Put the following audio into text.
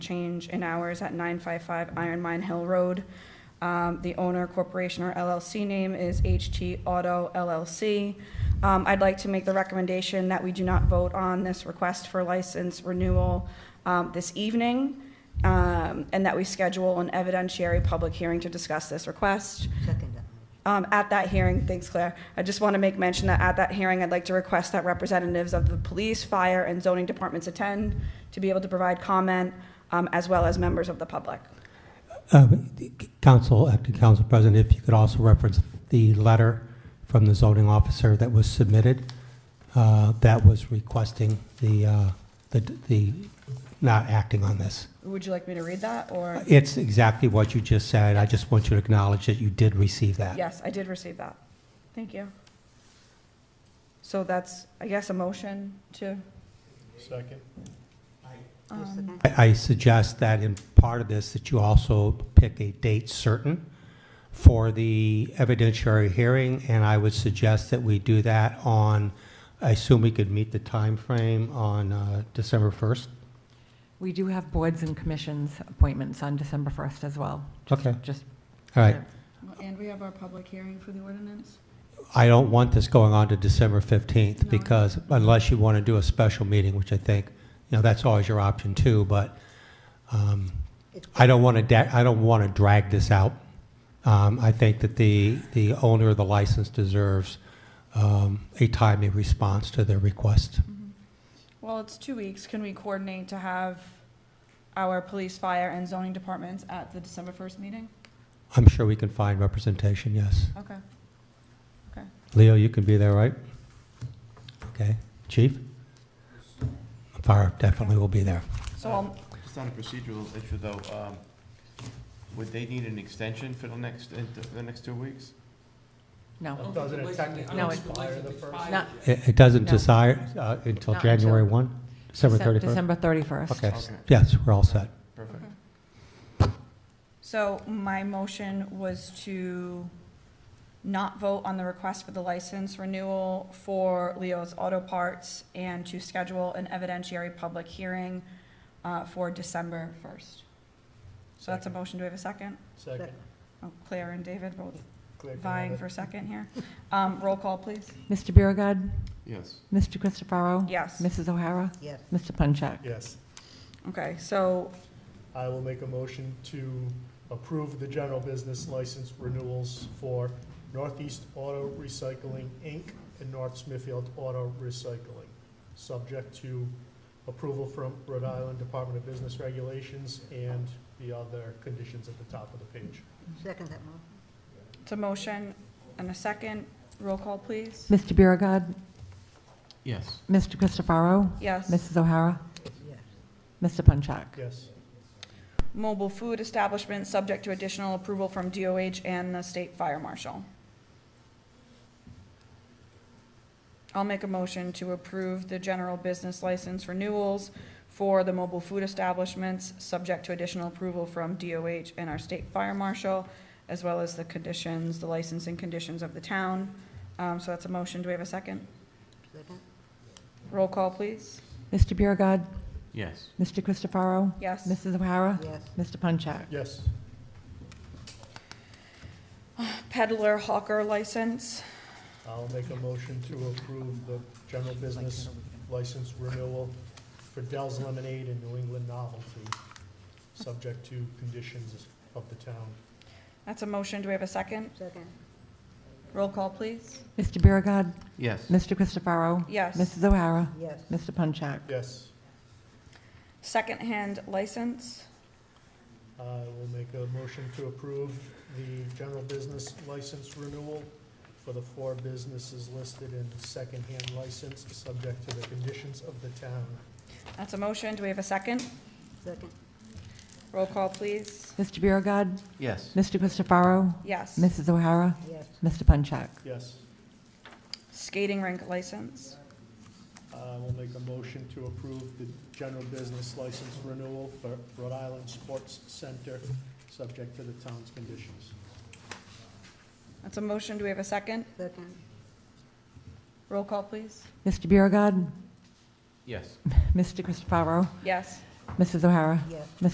change in hours at 955 Iron Mine Hill Road. Um, The owner corporation or LLC name is HT Auto LLC. Um, I'd like to make the recommendation that we do not vote on this request for license renewal um, this evening, um, and that we schedule an evidentiary public hearing to discuss this request. Second. Um, At that hearing, thanks Claire, I just want to make mention that at that hearing, I'd like to request that representatives of the police, fire, and zoning departments attend to be able to provide comment, um, as well as members of the public. Um, Council, acting council president, if you could also reference the letter from the zoning officer that was submitted, uh, that was requesting the, uh, the, the, not acting on this. Would you like me to read that, or? It's exactly what you just said. I just want you to acknowledge that you did receive that. Yes, I did receive that. Thank you. So that's, I guess, a motion to, Second. um, I I suggest that in part of this, that you also pick a date certain for the evidentiary hearing, and I would suggest that we do that on, I assume we could meet the time frame on uh, December 1st? We do have boards and commissions appointments on December 1st as well. Just- Okay. Just. All right. And we have our public hearing for the ordinance? I don't want this going on to December No. 15th, because unless you want to do a special meeting, which I think, you know, that's always your option too, but um, I don't want to, I don't want to drag this out. Um, I think that the, the owner of the license deserves um, a timely response to their request. well, it's two weeks. Can we coordinate to have our police, fire, and zoning departments at the December 1st meeting? I'm sure we can find representation, yes. Okay. Leo, you can be there, right? Okay. Chief? Fire definitely will be there. So I'll, Just on a procedural issue, though, um, would they need an extension for the next, in the- the next two weeks? No, Doesn't it technically No, it- expire the first? not. It it doesn't No. decide uh, until Not January until- 1? December Decem- 31st? December 31st. Okay, s- Okay. yes, we're all set. Perfect. so my motion was to not vote on the request for the license renewal for Leo's Auto Parts and to schedule an evidentiary public hearing uh, for December 1st. So that's a motion. Do we have a second? Second. Oh, Claire and David both Clear to vying have for it. a second here. Um, Roll call, please. Mr. Biragad, Yes. Mr. Christopherow. Yes. Mrs. O'Hara, Yes, Mr. Punchak. Yes. Okay, so I will make a motion to approve the general business license renewals for Northeast Auto Recycling, Inc. and North Smithfield Auto Recycling, subject to approval from Rhode Island Department of Business Regulations and the other conditions at the top of the page. second that motion. it's a motion and a second. Roll call, please. Mr. Biragad, Yes. Mr. Christopherow, Yes. Mrs. O'Hara, Yes, Mr. Punchak. Yes, Mobile food establishment, subject to additional approval from DOH and the state fire marshal. I'll make a motion to approve the general business license renewals for the mobile food establishments, subject to additional approval from DOH and our state fire marshal, as well as the conditions, the licensing conditions of the town. Um, so that's a motion. Do we have a second? second, Roll call, please. Mr. Biragad, Yes. Mr. Christopherow, Yes. Mrs. O'Hara, yes, Mr. Punchak. yes, Peddler hawker license. I'll make a motion to approve the general business license renewal for Dell's Lemonade and New England Novelty, subject to conditions of the town. That's a motion. Do we have a second? second, Roll call, please. Mr. Biragad, Yes. Mr. Christopherow, Yes. Mrs. O'Hara, yes, Mr. Punchak. Yes, Secondhand license, I will make a motion to approve the general business license renewal for the four businesses listed in secondhand license, subject to the conditions of the town. that's a motion. Do we have a second? second, Roll call, please. Mr. Biragad, Yes. Mr. Christopherow, Yes. Mrs. O'Hara, yes, Mr. Punchak. Yes, Skating rink license, I will Uh, make a motion to approve the general business license renewal for Rhode Island Sports Center, subject to the town's conditions. that's a motion. Do we have a second? second, Roll call, please. Mr. Biragad, Yes. Mr. Christopherow, Yes. Mrs. O'Hara, yes.